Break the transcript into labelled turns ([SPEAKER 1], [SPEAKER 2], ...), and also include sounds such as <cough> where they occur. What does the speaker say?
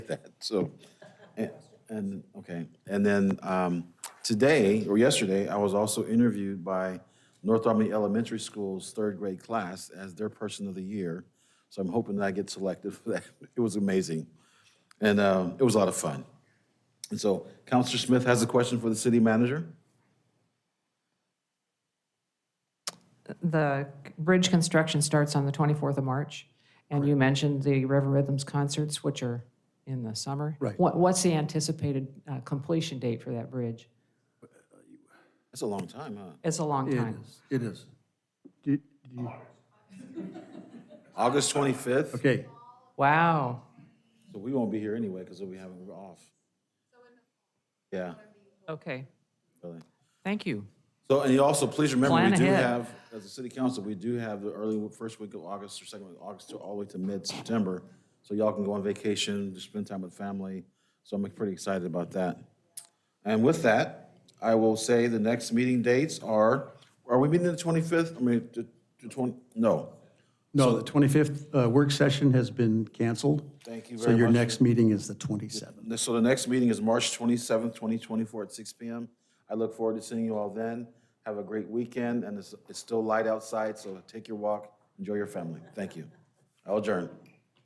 [SPEAKER 1] <laughs> that, so. and- And, okay, and then um, today, or yesterday, I was also interviewed by North Albany Elementary School's third grade class as their person of the year. So I'm hoping that I get selected for that. <laughs> It was amazing. And um, it was a lot of fun. And so Counselor Smith has a question for the city manager.
[SPEAKER 2] The bridge construction starts on the 24th of March, and you mentioned the River Rhythms concerts, which are in the summer.
[SPEAKER 3] Right.
[SPEAKER 2] What- What's the anticipated uh, completion date for that bridge?
[SPEAKER 1] That's a long time, huh?
[SPEAKER 2] It's a long
[SPEAKER 3] It
[SPEAKER 2] time.
[SPEAKER 3] is, it is. Do- do you-
[SPEAKER 1] August 25th?
[SPEAKER 3] Okay,
[SPEAKER 2] Wow.
[SPEAKER 1] So we won't be here anyway because we haven't, we're off. Yeah,
[SPEAKER 2] Okay,
[SPEAKER 1] really.
[SPEAKER 2] thank you.
[SPEAKER 1] So, and you also, please remember, we
[SPEAKER 2] Plan
[SPEAKER 1] do
[SPEAKER 2] ahead.
[SPEAKER 1] have, as a city council, we do have the early, first week of August or second week of August to all the way to mid-September. So y'all can go on vacation, just spend time with family. So I'm pretty excited about that. And with that, I will say the next meeting dates are, are we meeting the 25th? I mean, the the 20, no.
[SPEAKER 3] no, the 25th uh, work session has been canceled.
[SPEAKER 1] Thank you
[SPEAKER 3] So
[SPEAKER 1] very
[SPEAKER 3] your
[SPEAKER 1] much.
[SPEAKER 3] next meeting is the 27th.
[SPEAKER 1] So the next meeting is March 27th, 2024 at six PM. I look forward to seeing you all then. Have a great weekend, and it's it's still light outside, so take your walk, enjoy your family. Thank you. I'll adjourn.